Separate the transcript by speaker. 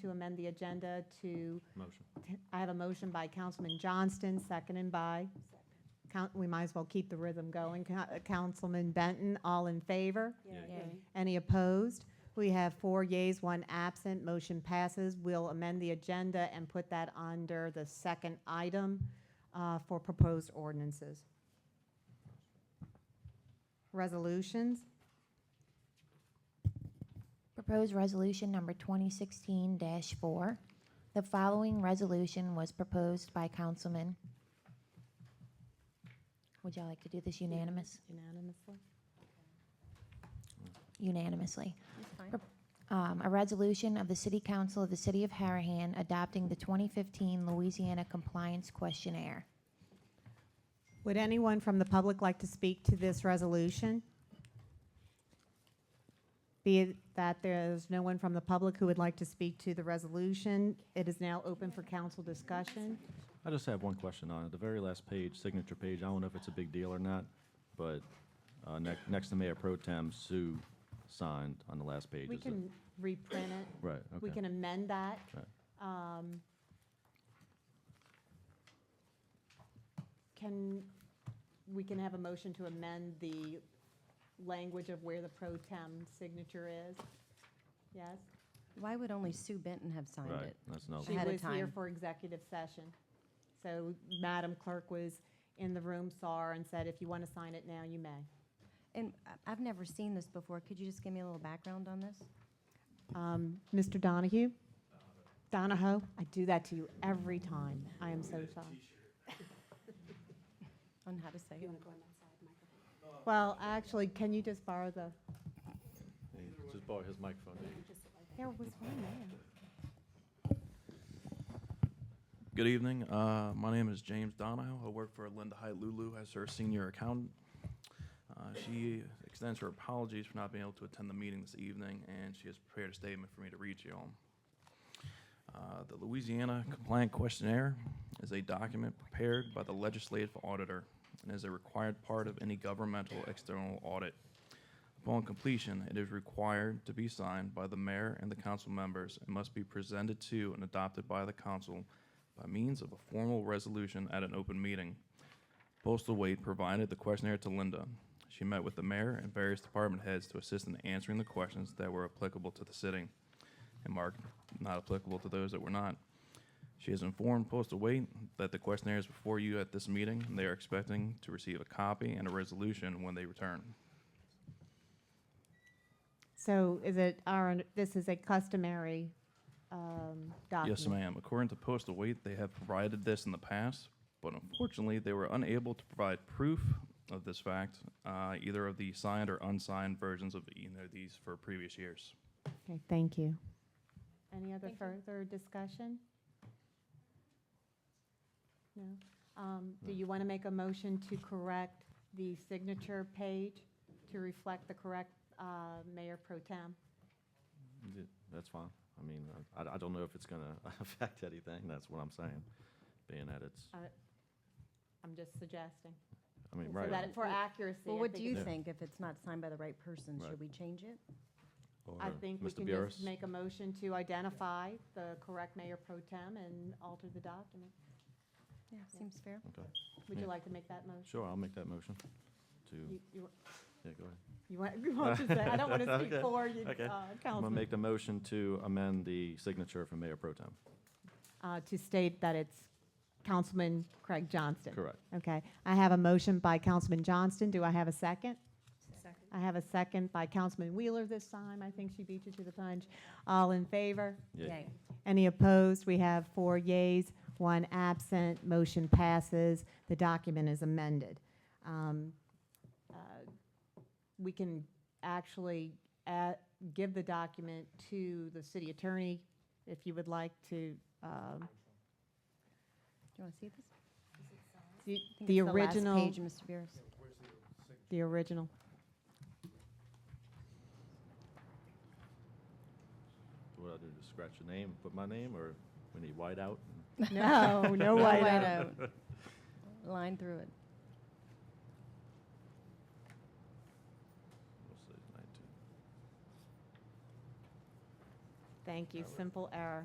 Speaker 1: to amend the agenda to,
Speaker 2: Motion.
Speaker 1: I have a motion by Councilman Johnston, seconded by, Coun- we might as well keep the rhythm going. Coun- uh, Councilman Benton, all in favor? Any opposed? We have four yeas, one absent. Motion passes. We'll amend the agenda and put that under the second item uh, for proposed ordinances. Resolutions?
Speaker 3: Proposed resolution number 2016-4. The following resolution was proposed by Councilman. Would y'all like to do this unanimous?
Speaker 1: Unanimously.
Speaker 3: Unanimously. Um, A resolution of the City Council of the City of Harahan adopting the 2015 Louisiana Compliance Questionnaire.
Speaker 1: Would anyone from the public like to speak to this resolution? Be it that there is no one from the public who would like to speak to the resolution, it is now open for council discussion.
Speaker 2: I just have one question on it. The very last page, signature page, I don't know if it's a big deal or not, but uh, ne- next to Mayor Pro Tem Sue signed on the last page.
Speaker 1: We
Speaker 2: Is it-
Speaker 1: can reprint it.
Speaker 2: Right,
Speaker 1: We
Speaker 2: okay.
Speaker 1: can amend that. Um,
Speaker 2: Right.
Speaker 1: Can, we can have a motion to amend the language of where the pro tem signature is? Yes?
Speaker 4: Why would only Sue Benton have signed
Speaker 2: Right,
Speaker 4: it?
Speaker 2: that's no,
Speaker 1: She
Speaker 4: Ahead of
Speaker 1: was here
Speaker 4: time.
Speaker 1: for executive session. So Madam Clerk was in the room, saw her, and said, if you want to sign it now, you may.
Speaker 4: And I- I've never seen this before. Could you just give me a little background on this?
Speaker 1: Mr. Um, Donahue? Donahoe? I do that to you every time. I am so sorry.
Speaker 4: On how to say it?
Speaker 1: Well, actually, can you just borrow the,
Speaker 2: just borrow his microphone.
Speaker 1: there was one there.
Speaker 5: Good evening. Uh, my name is James Donahoe. I work for Linda Height Lulu as her senior accountant. Uh, she extends her apologies for not being able to attend the meeting this evening, and she has prepared a statement for me to read to you all. Uh, The Louisiana Compliant Questionnaire is a document prepared by the legislative auditor and is a required part of any governmental external audit. Upon completion, it is required to be signed by the mayor and the council members and must be presented to and adopted by the council by means of a formal resolution at an open meeting. Postal Wait provided the questionnaire to Linda. She met with the mayor and various department heads to assist in answering the questions that were applicable to the city and marked not applicable to those that were not. She has informed Postal Wait that the questionnaire is before you at this meeting, and they are expecting to receive a copy and a resolution when they return.
Speaker 1: So is it our, this is a customary um, document?
Speaker 5: Yes, ma'am. According to Postal Wait, they have provided this in the past, but unfortunately, they were unable to provide proof of this fact, uh, either of the signed or unsigned versions of either of these for previous years.
Speaker 1: Okay, thank you. Any other
Speaker 4: Thank you.
Speaker 1: further discussion? No? Um, Do you want to make a motion to correct the signature page to reflect the correct uh, Mayor Pro Tem?
Speaker 2: That's fine. I mean, I, I don't know if it's gonna affect anything, that's what I'm saying, being that it's,
Speaker 1: Uh, I'm just suggesting.
Speaker 2: I mean,
Speaker 1: So that
Speaker 2: right.
Speaker 1: it- for accuracy.
Speaker 4: Well,
Speaker 1: I
Speaker 4: what
Speaker 1: think
Speaker 4: do you
Speaker 1: it's-
Speaker 2: Yeah.
Speaker 4: think? If it's not signed by the right person,
Speaker 2: Right.
Speaker 4: should we change it?
Speaker 1: I think we can just make a motion to identify the correct Mayor Pro Tem and alter the document.
Speaker 4: Yeah, seems fair.
Speaker 2: Okay,
Speaker 1: Would you
Speaker 2: Yeah.
Speaker 1: like to make that motion?
Speaker 2: sure, I'll make that motion to,
Speaker 1: You- You
Speaker 2: yeah, go ahead.
Speaker 1: you want you want to say, I don't want to speak
Speaker 2: Okay,
Speaker 1: for you,
Speaker 2: okay.
Speaker 1: uh, Councilman.
Speaker 2: I'm gonna make the motion to amend the signature for Mayor Pro Tem.
Speaker 1: uh, to state that it's Councilman Craig Johnston.
Speaker 2: Correct.
Speaker 1: Okay. I have a motion by Councilman Johnston. Do I have a second?
Speaker 4: Second.
Speaker 1: I have a second by Councilman Wheeler this time. I think she beat you to the punch. All in favor?
Speaker 2: Yeah.
Speaker 4: Yay.
Speaker 1: Any opposed? We have four yays, one absent. Motion passes. The document is amended. Um, uh, We can actually add- give the document to the city attorney if you would like to um,
Speaker 4: Do you want to see this?
Speaker 1: The
Speaker 4: I think
Speaker 1: the
Speaker 4: it's last
Speaker 1: original,
Speaker 4: Page, Mr. Beers.
Speaker 1: the original.
Speaker 2: What do I do, just scratch your name, put my name, or we need whiteout?
Speaker 1: No, no
Speaker 4: White
Speaker 1: whiteout.
Speaker 4: out. Line through it.
Speaker 2: We'll say 19.
Speaker 1: Thank you, simple error.